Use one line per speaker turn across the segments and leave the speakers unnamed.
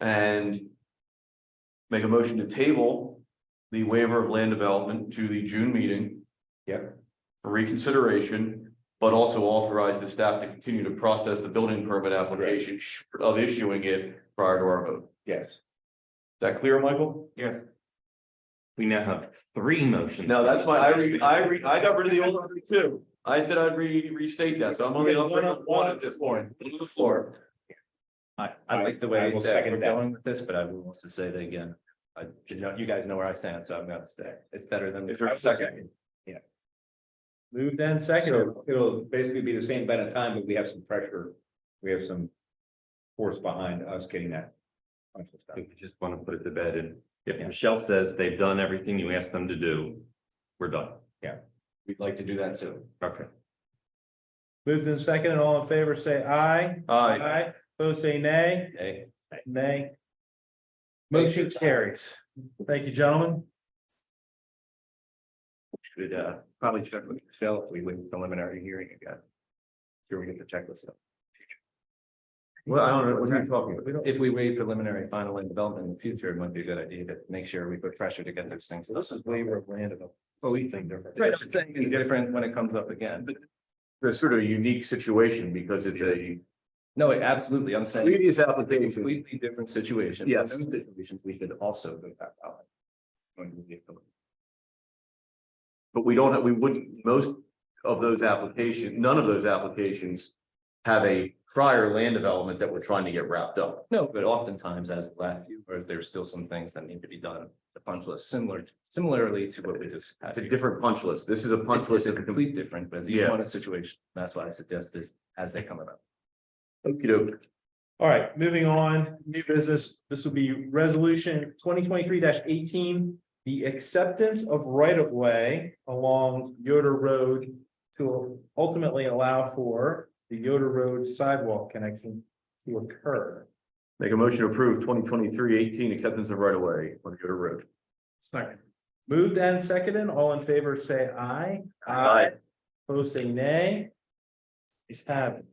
And make a motion to table the waiver of land development to the June meeting.
Yep.
For reconsideration, but also authorize the staff to continue to process the building permit application short of issuing it prior to our vote. Is
Yes.
that clear, Michael?
We now have three motions.
No, that's why I re, I re, I got rid of the old one too. I said I'd re, restate that, so I'm only on one at this point, on the floor.
I, I like the way
I will
that
second
we're
that.
going with this, but I would want to say that again. I, you know, you guys know where I stand, so I'm gonna stay. It's better than.
Is there a second?
Yeah. Moved and seconded. it'll basically be the same amount of time, but we have some pressure, we have some force behind us getting that. conscious
I
stuff.
think We just want to put it to bed and if Michelle says they've done everything you asked them to do, we're done.
We'd like to do that too.
Okay.
Moved in second and all in favor, say aye.
Aye.
Opposed, say nay.
Hey,
Nay. Motion carries. Thank you, gentlemen.
should uh probably check with Phil if we wait preliminary hearing again. Sure, we get the checklist.
Well, I don't know, what are you talking about?
If we wait preliminary final and development in the future, it might be a good idea to make sure we put pressure to get those things. So this is waiver of land of. Oh, we think different. Right, I'm saying it's different when it comes up again.
It's sort of a unique situation because it's a
No, absolutely, I'm saying.
previous
a
application.
Completely different situation.
Yes.
Those Situations we should also go back out.
But we don't, have we wouldn't, most of those applications, none of those applications have a prior land development that we're trying to get wrapped up.
No, but oftentimes as the last few, or if there's still some things that need to be done, the punch list similar, similarly to what we just. had
It's a
here.
different punch list. This is a punch
It's
list.
it's a
of complete.
complete different, but it's
Yeah.
each one a situation. That's why I suggested as they come about.
Okey-doke.
All right, moving on, new business. This will be resolution twenty twenty-three eighteen. The acceptance of right of way along Yoder Road to ultimately allow for the Yoder Road sidewalk connection to occur.
Make a motion to approve 2023-18 acceptance of right of way on Yoder Road.
Second. Moved and seconded, all in favor, say aye.
Aye.
Opposed, say nay. Is have. it.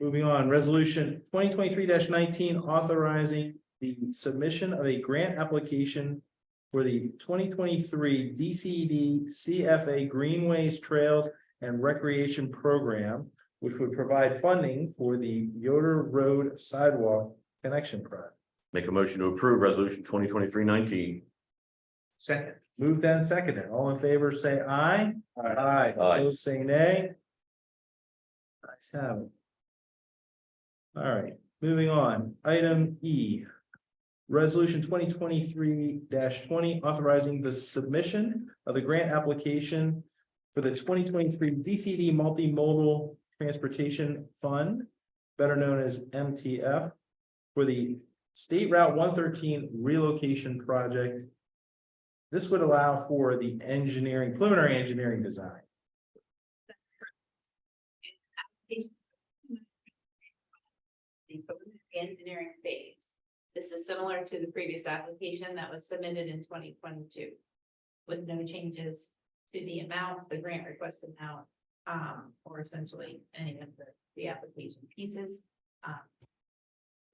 Moving on, resolution twenty twenty-three nineteen authorizing the submission of a grant application. For the twenty twenty-three E DCD CFA Greenways Trails and Recreation Program. Which would provide funding for the Yoder Road Sidewalk Connection Project.
Make a motion to approve resolution 2023-19.
Second. Moved and seconded. All in favor, say aye. Aye. Opposed, say nay. Ayes have it. All right, moving on. Item E. Resolution twenty twenty-three twenty authorizing the submission of the grant application for the twenty twenty-three DCD Multimodal Transportation Fund, better known as MTF, for the State Route one thirteen relocation project this would allow for the engineering, preliminary engineering design.
That's correct. And application- The preliminary engineering phase. This is similar to the previous application that was submitted in twenty twenty-two. With no changes to the amount, the grant request amount, um, or essentially any of the, the application pieces. um,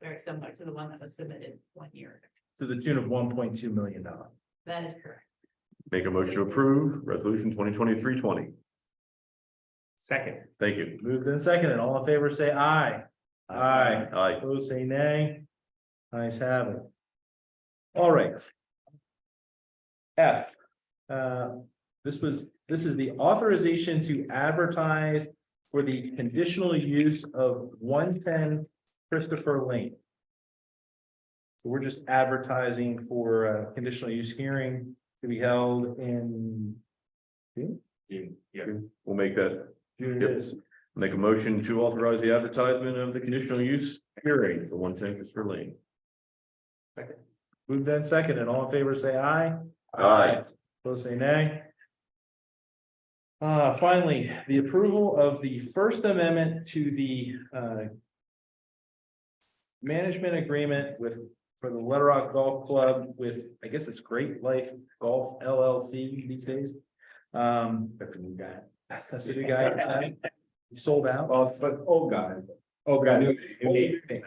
Very similar to the one that was submitted one year ago.
To the tune of one point two million dollars.
That is correct.
Make a motion to approve resolution 2023-20.
Second.
Thank you.
Moved and seconded. all in favor, say aye. Aye.
Aye.
Opposed, say nay. Ayes have it. All right. F. Uh, this was, this is the authorization to advertise for the conditional use of one ten Christopher Lane. So we're just advertising for a conditional use hearing to be held in
We'll make that,
June.
Yep.
it is.
make a motion to authorize the advertisement of the conditional use hearing for one ten Christopher Lane.
Moved and seconded. all in favor, say aye.
Aye.
Opposed, say nay. Uh, finally, the approval of the First Amendment to the, uh. Management agreement with, for the Little Rock Golf Club with, I guess it's Great Life Golf LLC these days. Um. That's a new guy. That's, that's a new guy. He sold out.
Well, it's like old guy.
Oh,
New-
Old
new-
thing.